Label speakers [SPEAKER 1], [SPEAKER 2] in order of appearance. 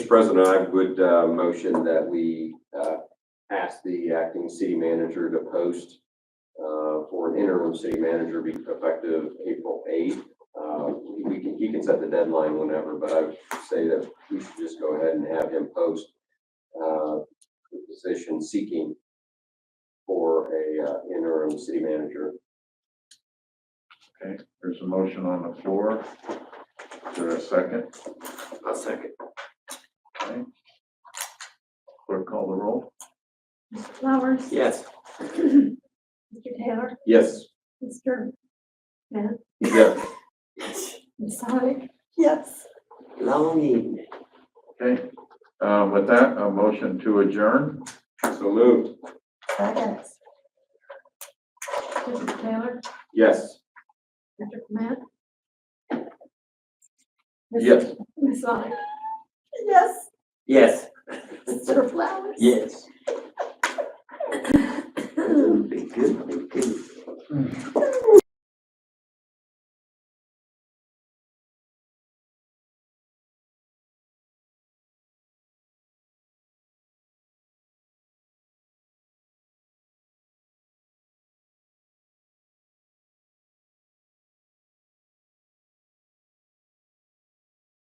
[SPEAKER 1] President, I would uh, motion that we uh, ask the acting city manager to post uh, for an interim city manager be effective April eighth. Uh, We can, he can set the deadline whenever, but I would say that we should just go ahead and have him post uh, the position seeking for a uh, interim city manager.
[SPEAKER 2] Okay, there's a motion on the floor. Is there a second?
[SPEAKER 1] I'll second.
[SPEAKER 2] Okay. Clerk call the roll?
[SPEAKER 3] Flowers?
[SPEAKER 1] Yes.
[SPEAKER 3] Mr. Taylor?
[SPEAKER 1] Yes.
[SPEAKER 3] Mr. Smith?
[SPEAKER 1] Yes.
[SPEAKER 3] Ms. Sonic? Yes.
[SPEAKER 1] Long evening.
[SPEAKER 2] Okay, uh, with that, a motion to adjourn?
[SPEAKER 1] So moved.
[SPEAKER 3] Second. Mr. Taylor?
[SPEAKER 1] Yes.
[SPEAKER 3] Mr. Smith?
[SPEAKER 2] Yes.
[SPEAKER 3] Ms. Sonic? Yes.
[SPEAKER 4] Yes.
[SPEAKER 3] Mr. Flowers?
[SPEAKER 4] Yes.